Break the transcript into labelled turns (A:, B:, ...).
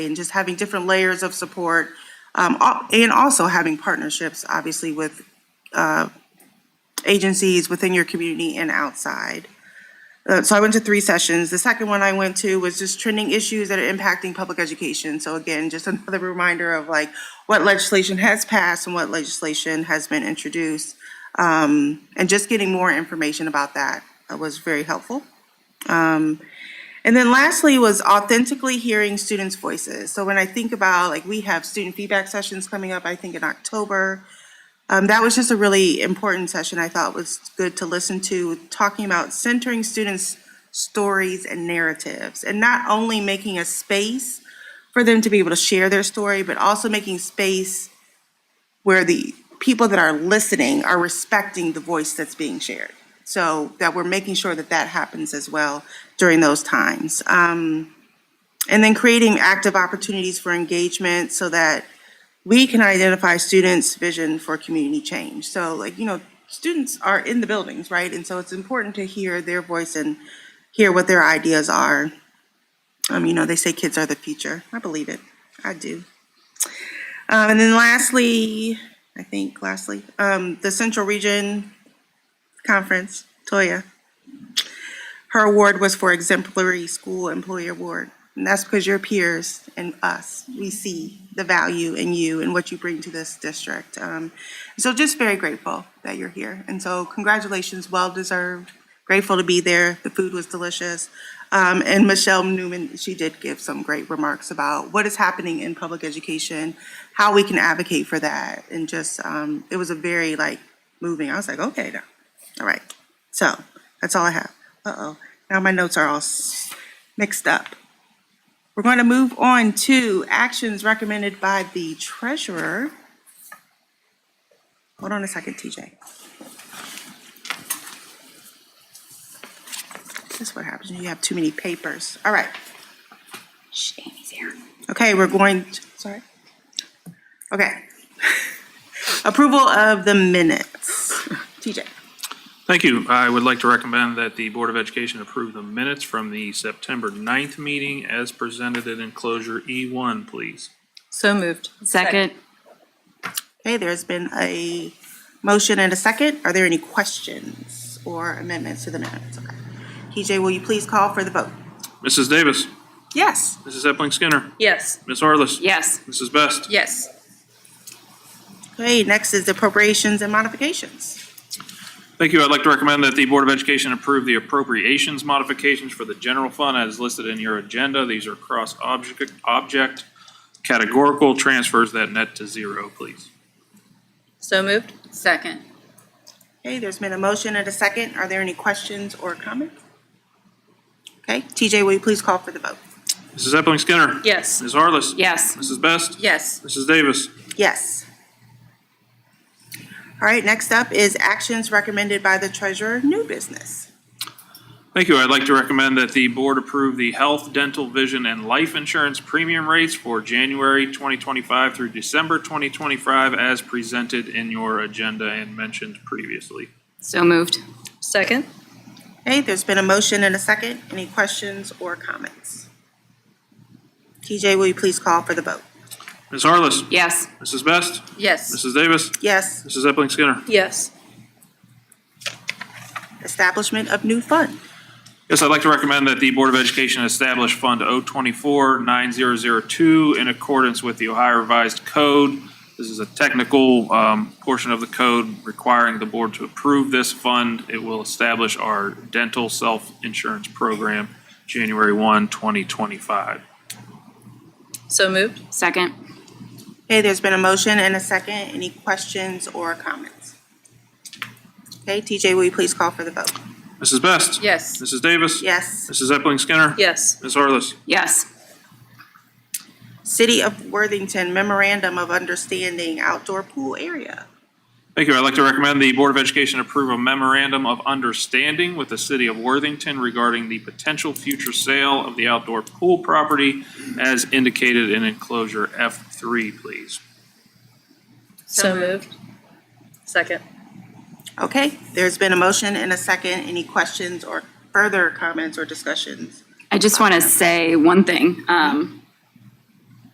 A: and just having different layers of support, um, al- and also having partnerships, obviously, with, uh, agencies within your community and outside. Uh, so I went to three sessions. The second one I went to was just trending issues that are impacting public education. So again, just another reminder of like what legislation has passed and what legislation has been introduced. Um, and just getting more information about that uh, was very helpful. And then lastly was authentically hearing students' voices. So when I think about, like, we have student feedback sessions coming up, I think in October. Um, that was just a really important session I thought was good to listen to, talking about centering students' stories and narratives. And not only making a space for them to be able to share their story, but also making space where the people that are listening are respecting the voice that's being shared. So that we're making sure that that happens as well during those times. Um, and then creating active opportunities for engagement so that we can identify students' vision for community change. So like, you know, students are in the buildings, right? And so it's important to hear their voice and hear what their ideas are. Um, you know, they say kids are the future. I believe it. I do. Um, and then lastly, I think lastly, um, the Central Region Conference, Toya. Her award was for exemplary school employee award. And that's because your peers and us, we see the value in you and what you bring to this district. Um, so just very grateful that you're here. And so congratulations, well deserved. Grateful to be there. The food was delicious. Um, and Michelle Newman, she did give some great remarks about what is happening in public education, how we can advocate for that. And just, um, it was a very like moving, I was like, okay, now, all right. So that's all I have. Uh-oh, now my notes are all s- mixed up. We're going to move on to actions recommended by the treasurer. Hold on a second, TJ. This is what happens when you have too many papers. All right. Shh, Amy's here. Okay, we're going, sorry. Okay. Approval of the minutes. TJ.
B: Thank you. I would like to recommend that the Board of Education approve the minutes from the September 9th meeting as presented in enclosure E1, please.
C: So moved.
D: Second.
A: Okay, there's been a motion and a second. Are there any questions or amendments to the minutes? Okay. TJ, will you please call for the vote?
B: Mrs. Davis,
A: Yes.
B: Mrs. Epling Skinner,
C: Yes.
B: Ms. Harless.
D: Yes.
B: Mrs. Best.
C: Yes.
A: Okay, next is appropriations and modifications.
B: Thank you. I'd like to recommend that the Board of Education approve the appropriations modifications for the general fund as listed in your agenda. These are cross-object object categorical transfers that net to zero, please.
C: So moved.
D: Second.
A: Okay, there's been a motion and a second. Are there any questions or comments? Okay, TJ, will you please call for the vote?
B: Mrs. Epling Skinner.
C: Yes.
B: Ms. Harless.
D: Yes.
B: Mrs. Best.
C: Yes.
B: Mrs. Davis.
A: Yes. All right, next up is actions recommended by the treasurer, new business.
B: Thank you. I'd like to recommend that the board approve the health, dental, vision, and life insurance premium rates for January 2025 through December 2025 as presented in your agenda and mentioned previously.
D: So moved.
C: Second.
A: Okay, there's been a motion and a second. Any questions or comments? TJ, will you please call for the vote?
B: Ms. Harless.
D: Yes.
B: Mrs. Best.
C: Yes.
B: Mrs. Davis.
A: Yes,
B: Mrs. Epling Skinner.
C: Yes.
A: establishment of new fund.
B: Yes, I'd like to recommend that the Board of Education establish Fund 024-9002 in accordance with the Ohio Revised Code. This is a technical um, portion of the code requiring the board to approve this fund. It will establish our dental self-insurance program January 1, 2025.
C: So moved.
D: Second.
A: Okay, there's been a motion and a second. Any questions or comments? Okay, TJ, will you please call for the vote?
B: Mrs. Best?
C: Yes.
B: Mrs. Davis?
A: Yes.
B: Mrs. Epling Skinner?
C: Yes.
B: Ms. Harless?
D: Yes.
A: City of Worthington Memorandum of Understanding Outdoor Pool Area.
B: Thank you. I'd like to recommend the Board of Education approve a memorandum of understanding with the city of Worthington regarding the potential future sale of the outdoor pool property as indicated in enclosure F3, please.
C: So moved. Second.
A: Okay, there's been a motion and a second. Any questions or further comments or discussions?
D: I just want to say one thing. Um,